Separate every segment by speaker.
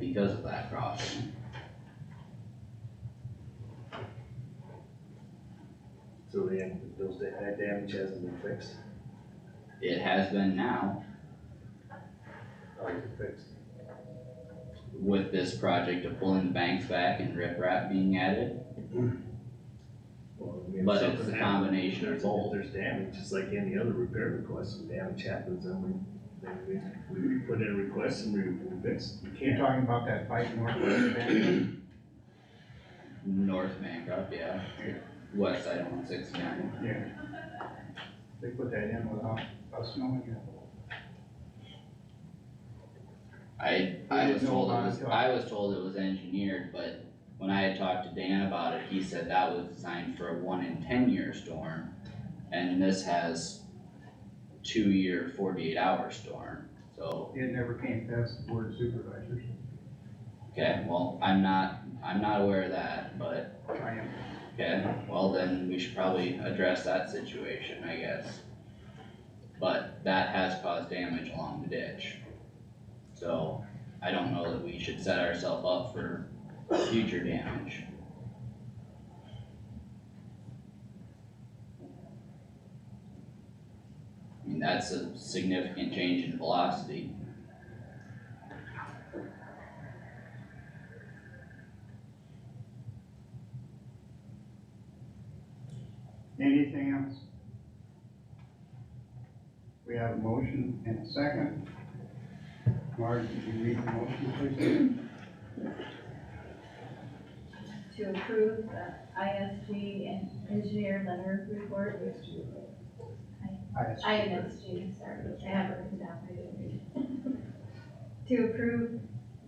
Speaker 1: because of that crossing.
Speaker 2: So then, those, da- that damage hasn't been fixed,
Speaker 1: It has been now
Speaker 2: or is it fixed?
Speaker 1: with this project of pulling the banks back and riprap being added,
Speaker 2: Well, I mean, if
Speaker 1: but it's
Speaker 2: something
Speaker 1: a
Speaker 2: happens,
Speaker 1: combination
Speaker 2: There's,
Speaker 1: of
Speaker 2: if
Speaker 1: both.
Speaker 2: there's damage, just like any other repair request, if damage happens, then we, then we, we put in a request and we, we fix it. We
Speaker 3: You're
Speaker 2: can't,
Speaker 3: talking about that fight north of Van,
Speaker 1: North Bancroft, yeah, west side of one sixty-nine.
Speaker 3: yeah. They put that in without us knowing it.
Speaker 1: I,
Speaker 3: We
Speaker 1: I
Speaker 3: didn't
Speaker 1: was
Speaker 3: know
Speaker 1: told it
Speaker 3: about it
Speaker 1: was,
Speaker 3: till-
Speaker 1: I was told it was engineered, but when I had talked to Dan about it, he said that was designed for a one in ten year storm. And this has two year forty-eight hour storm, so,
Speaker 3: It never came past the board of supervisors.
Speaker 1: okay, well, I'm not, I'm not aware of that, but,
Speaker 3: I am,
Speaker 1: okay, well then, we should probably address that situation, I guess. But that has caused damage along the ditch. So, I don't know that we should set ourselves up for future damage. I mean, that's a significant change in velocity.
Speaker 3: anything else? We have a motion and a second. Marge, did you read the motion,
Speaker 4: to approve the ISG and engineer letter report.
Speaker 3: please? I asked you.
Speaker 4: ISG, sorry, I have it written down, I didn't read it. To approve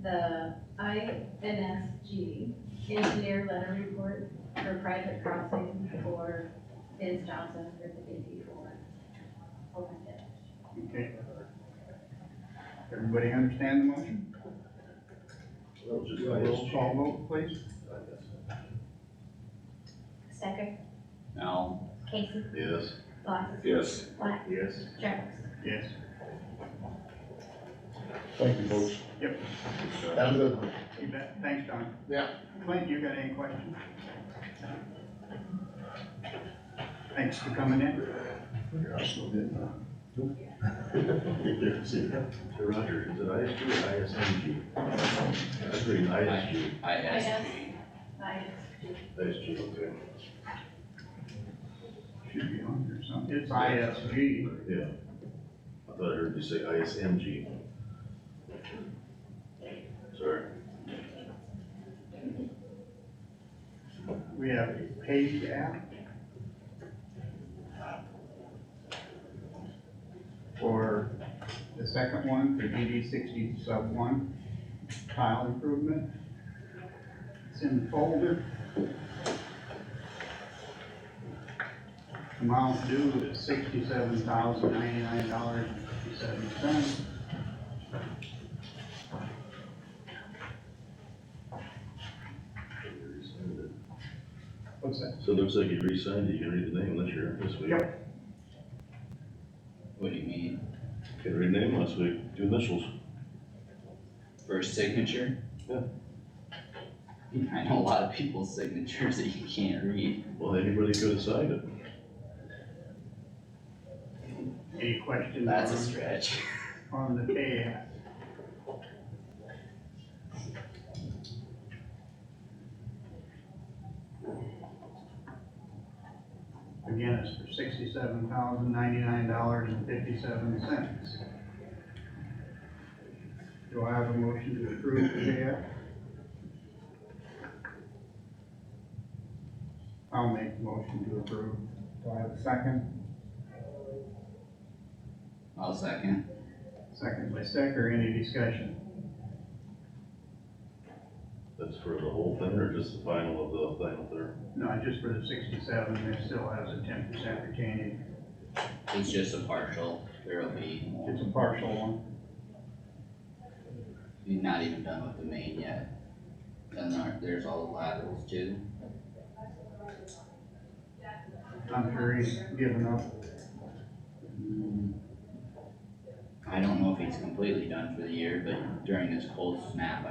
Speaker 4: the INSG engineer letter report for private crossing for Ms. Johnson for oh the eighty-four. Open ditch.
Speaker 3: Okay. Everybody understand the motion?
Speaker 2: well, just.
Speaker 3: Roll call vote, please.
Speaker 5: Stecker,
Speaker 1: Now,
Speaker 5: Casey,
Speaker 2: Yes.
Speaker 5: Block,
Speaker 6: Yes.
Speaker 5: Black,
Speaker 2: Yes.
Speaker 5: Jerks.
Speaker 3: Yes.
Speaker 7: Thank you, folks.
Speaker 3: Yep.
Speaker 7: Have a good one.
Speaker 3: You bet. Thanks, Don.
Speaker 7: Yeah.
Speaker 3: Clint, you got any questions? Thanks for coming in.
Speaker 2: Roger, is it ISG or ISMG?
Speaker 8: That's pretty nice, G,
Speaker 1: I
Speaker 4: I
Speaker 1: asked,
Speaker 4: guess, ISG.
Speaker 8: nice, G, okay.
Speaker 3: Should be on here something. It's ISG.
Speaker 8: Yeah. I thought I heard you say ISMG. Sorry.
Speaker 3: We have a paid app. For the second one, for DD sixty sub one, tile improvement. It's in the folder. Amount due is sixty-seven thousand ninety-nine dollars and fifty-seven cents. What's that?
Speaker 8: So it looks like you re-signed it, you can read the name unless you're this week.
Speaker 3: Yep.
Speaker 1: what do you mean,
Speaker 8: Can read the name last week, two initials.
Speaker 1: first signature?
Speaker 8: Yeah.
Speaker 1: I know a lot of people's signatures that you can't read.
Speaker 8: Well, anybody could have signed it.
Speaker 3: Any questions?
Speaker 1: That's a
Speaker 3: on-
Speaker 1: stretch.
Speaker 3: on the pay app. Again, it's for sixty-seven thousand ninety-nine dollars and fifty-seven cents. Do I have a motion to approve the pay app? I'll make the motion to approve. Do I have a second?
Speaker 1: I'll second.
Speaker 3: Second by Stecker, any discussion?
Speaker 8: That's for the whole thing or just the final of the final there?
Speaker 3: No, just for the sixty-seven, it still has a ten percent retaining,
Speaker 1: It's just a partial, there'll be more.
Speaker 3: it's a partial one.
Speaker 1: You're not even done with the main yet. Then there, there's all the laterals too.
Speaker 3: I'm sure he's given up,
Speaker 1: I don't know if he's completely done for the year, but during this cold snap, I